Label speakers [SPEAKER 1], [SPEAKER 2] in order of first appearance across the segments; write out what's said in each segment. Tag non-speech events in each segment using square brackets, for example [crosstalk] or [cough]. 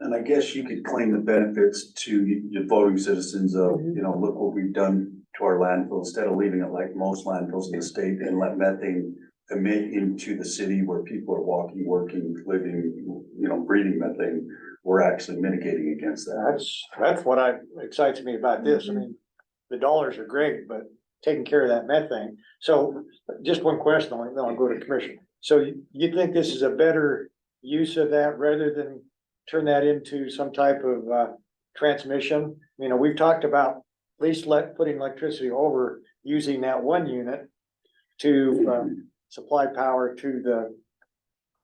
[SPEAKER 1] And I guess you could claim the benefits to y- your voting citizens of,
[SPEAKER 2] Mm-hmm.
[SPEAKER 1] you know, look what we've done to our landfill, instead of leaving it like most landfills in the state and let methane emit into the city where people are walking, working, living, you know, breathing methane, we're actually mitigating against that.
[SPEAKER 3] That's, that's what I, excites me about this. I mean, the dollars are great, but taking care of that methane. So just one question, then I'll go to commission. So you, you think this is a better use of that rather than turn that into some type of, uh, transmission? You know, we've talked about at least let, putting electricity over using that one unit to, um, supply power to the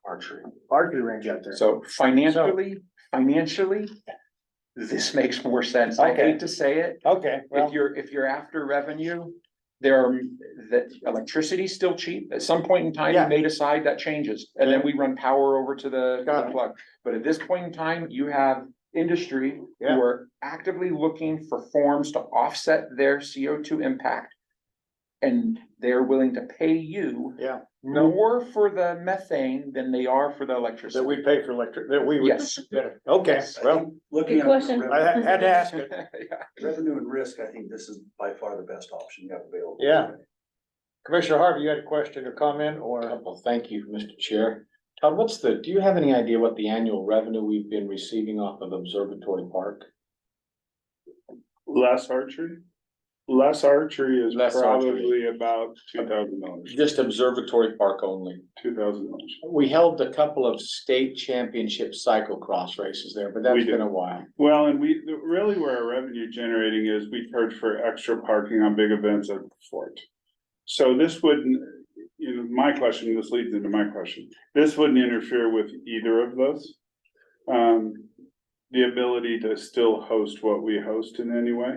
[SPEAKER 4] archery.
[SPEAKER 3] archery range out there.
[SPEAKER 4] So financially, financially, this makes more sense. I
[SPEAKER 3] Okay.
[SPEAKER 4] hate to say it.
[SPEAKER 3] Okay, well,
[SPEAKER 4] If you're, if you're after revenue, there are, that electricity's still cheap. At some point in time,
[SPEAKER 3] Yeah.
[SPEAKER 4] you may decide that changes. And then we run power over to the
[SPEAKER 3] Got
[SPEAKER 4] the
[SPEAKER 3] it.
[SPEAKER 4] plug. But at this point in time, you have industry
[SPEAKER 3] Yeah.
[SPEAKER 4] who are actively looking for forms to offset their CO two impact. And they're willing to pay you
[SPEAKER 3] yeah, No.
[SPEAKER 4] more for the methane than they are for the
[SPEAKER 3] that
[SPEAKER 4] electricity.
[SPEAKER 3] we pay for electric, that we would.
[SPEAKER 4] Yes.
[SPEAKER 3] Okay,
[SPEAKER 1] I
[SPEAKER 3] well,
[SPEAKER 1] think Looking
[SPEAKER 2] Good
[SPEAKER 1] at
[SPEAKER 2] question.
[SPEAKER 3] I
[SPEAKER 1] revenue-
[SPEAKER 3] had had to ask it.
[SPEAKER 4] Yeah.
[SPEAKER 1] revenue and risk, I think this is by far the best option you have available.
[SPEAKER 3] Yeah. Commissioner Harvey, you had a question or comment or?
[SPEAKER 5] Well, thank you, Mr. Chair. Todd, what's the, do you have any idea what the annual revenue we've been receiving off of Observatory Park?
[SPEAKER 6] Less archery? Less archery is
[SPEAKER 5] Less archery.
[SPEAKER 6] probably about two thousand dollars,
[SPEAKER 5] Just Observatory Park only.
[SPEAKER 6] two thousand dollars.
[SPEAKER 5] We held a couple of state championship cyclocross races there, but that's
[SPEAKER 6] We did.
[SPEAKER 5] been a while.
[SPEAKER 6] Well, and we, really where our revenue generating is, we charge for extra parking on big events at the fort. So this wouldn't, you know, my question, this leads into my question, this wouldn't interfere with either of those. Um, the ability to still host what we host in any way.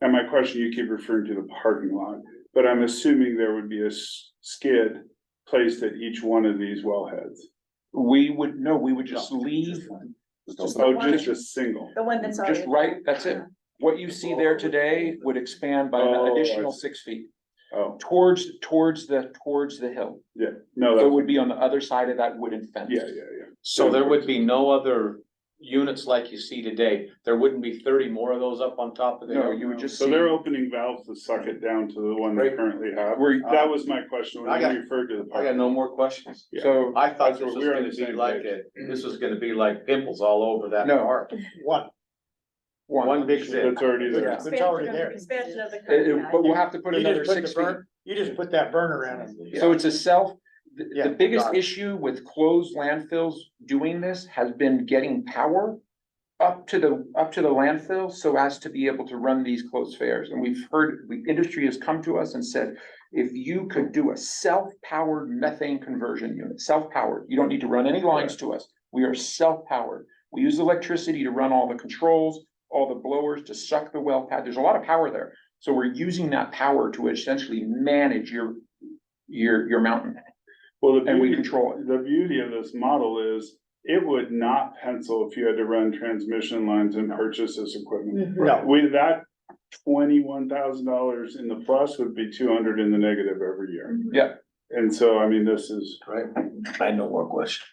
[SPEAKER 6] And my question, you keep referring to the parking lot, but I'm assuming there would be a s- skid placed at each one of these wellheads.
[SPEAKER 4] We would, no, we would just leave
[SPEAKER 6] Oh, just a single.
[SPEAKER 2] The one that's
[SPEAKER 4] Just
[SPEAKER 2] already.
[SPEAKER 4] right, that's it. What you see there today would expand by an
[SPEAKER 6] Oh,
[SPEAKER 4] additional
[SPEAKER 6] I see.
[SPEAKER 4] six feet
[SPEAKER 6] Oh,
[SPEAKER 4] towards, towards the, towards the hill.
[SPEAKER 6] yeah,
[SPEAKER 4] So
[SPEAKER 6] no,
[SPEAKER 4] it
[SPEAKER 6] that's,
[SPEAKER 4] would be on the other side of that wooden fence.
[SPEAKER 6] yeah, yeah, yeah.
[SPEAKER 5] So there would be no other units like you see today. There wouldn't be thirty more of those up on top of
[SPEAKER 4] No,
[SPEAKER 5] there.
[SPEAKER 4] you would just
[SPEAKER 6] So they're
[SPEAKER 4] see,
[SPEAKER 6] opening valves to suck it down to the one they
[SPEAKER 5] Right.
[SPEAKER 6] currently have. Uh,
[SPEAKER 4] Where-
[SPEAKER 6] That was my question when
[SPEAKER 5] I
[SPEAKER 6] you
[SPEAKER 5] got-
[SPEAKER 6] referred to the
[SPEAKER 5] I got
[SPEAKER 6] park.
[SPEAKER 5] no more questions.
[SPEAKER 6] Yeah.
[SPEAKER 4] so,
[SPEAKER 5] I thought
[SPEAKER 6] That's
[SPEAKER 5] this
[SPEAKER 6] what
[SPEAKER 5] was
[SPEAKER 6] we're on
[SPEAKER 5] gonna
[SPEAKER 6] the same
[SPEAKER 5] be like
[SPEAKER 6] page.
[SPEAKER 5] a, this was gonna be like pimples all over that
[SPEAKER 4] No.
[SPEAKER 5] park.
[SPEAKER 3] One.
[SPEAKER 5] One big zip.
[SPEAKER 6] That's already there.
[SPEAKER 3] It's already there.
[SPEAKER 2] Expansion of the.
[SPEAKER 4] it-
[SPEAKER 2] current
[SPEAKER 4] it- but
[SPEAKER 2] value.
[SPEAKER 4] we'll have to put
[SPEAKER 3] You
[SPEAKER 4] another
[SPEAKER 3] just put
[SPEAKER 4] six
[SPEAKER 3] the
[SPEAKER 4] feet.
[SPEAKER 3] burn, you just put that burner in it.
[SPEAKER 4] So it's a self, the,
[SPEAKER 3] Yeah,
[SPEAKER 4] the biggest
[SPEAKER 3] got it.
[SPEAKER 4] issue with closed landfills doing this has been getting power up to the, up to the landfill so as to be able to run these closed fairs. And we've heard, the industry has come to us and said, if you could do a self-powered methane conversion unit, self-powered, you don't need to run any lines to us. We are self-powered. We use electricity to run all the controls, all the blowers to suck the well pad. There's a lot of power there. So we're using that power to essentially manage your, your, your mountain
[SPEAKER 6] Well, the
[SPEAKER 4] and we
[SPEAKER 6] beauty,
[SPEAKER 4] control it.
[SPEAKER 6] the beauty of this model is it would not pencil if you had to run transmission lines and purchase this equipment.
[SPEAKER 2] Mhm.
[SPEAKER 3] No,
[SPEAKER 6] With that, twenty-one thousand dollars in the plus would be two hundred in the negative every year.
[SPEAKER 2] Mhm.
[SPEAKER 6] And so, I mean, this is,
[SPEAKER 5] Right? I had no more questions.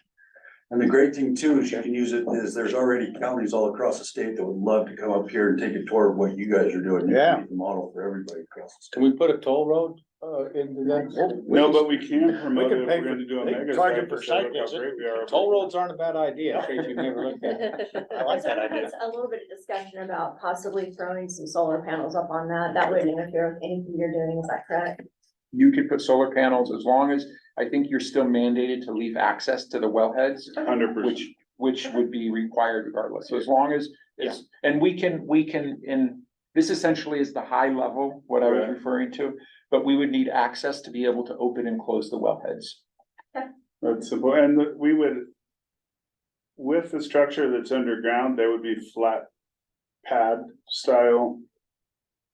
[SPEAKER 1] And the great thing too is you can use it, is there's already counties all across the state that would love to come up here and take a tour of what you guys are doing. You can
[SPEAKER 3] Yeah.
[SPEAKER 1] be The model for everybody across the state.
[SPEAKER 5] Can we put a toll road, uh, into that?
[SPEAKER 6] no, but we can promote
[SPEAKER 3] can
[SPEAKER 6] it if
[SPEAKER 3] pay
[SPEAKER 6] we're gonna do a
[SPEAKER 3] they can
[SPEAKER 6] mega.
[SPEAKER 3] charge
[SPEAKER 6] site
[SPEAKER 3] it for
[SPEAKER 6] to show
[SPEAKER 3] site
[SPEAKER 6] how
[SPEAKER 3] visit.
[SPEAKER 6] great we are.
[SPEAKER 5] Toll roads aren't a bad idea, in case you've never looked at it. [laughs] I like
[SPEAKER 2] So
[SPEAKER 5] that
[SPEAKER 2] there
[SPEAKER 5] idea.
[SPEAKER 2] was A little bit of discussion about possibly throwing some solar panels up on that. That wouldn't interfere with anything you're doing, is that correct?
[SPEAKER 4] You could put solar panels as long as, I think you're still mandated to leave access to the wellheads,
[SPEAKER 6] Hundred percent.
[SPEAKER 4] which, which would be required regardless. So as long as it's, and we can, we can, in this essentially is the high level, what I was
[SPEAKER 6] Right.
[SPEAKER 4] referring to, but we would need access to be able to open and close the wellheads.
[SPEAKER 6] That's simple, and the- we would. With the structure that's underground, there would be flat pad style.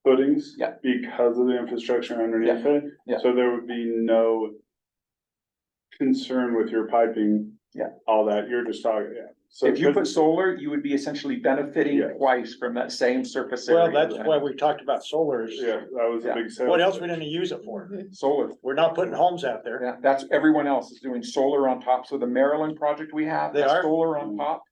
[SPEAKER 6] Footings.
[SPEAKER 4] Yeah.
[SPEAKER 6] Because of the infrastructure underneath it.
[SPEAKER 4] Yeah.
[SPEAKER 6] So there would be no. Concern with your piping.
[SPEAKER 4] Yeah.
[SPEAKER 6] All that, you're just talking, yeah. So
[SPEAKER 4] If you put solar, you would be essentially benefiting
[SPEAKER 6] Yes.
[SPEAKER 4] twice from that same surface
[SPEAKER 3] well,
[SPEAKER 4] area.
[SPEAKER 3] that's why we talked about solar is,
[SPEAKER 6] Yeah, that was a
[SPEAKER 4] Yeah.
[SPEAKER 6] big. sale.
[SPEAKER 3] what else we gonna use it for?
[SPEAKER 4] Solar,
[SPEAKER 3] We're not putting homes out there.
[SPEAKER 4] Yeah, that's, everyone else is doing solar on top, so the Maryland project we have,
[SPEAKER 3] They
[SPEAKER 4] that's
[SPEAKER 3] are?
[SPEAKER 4] solar on top.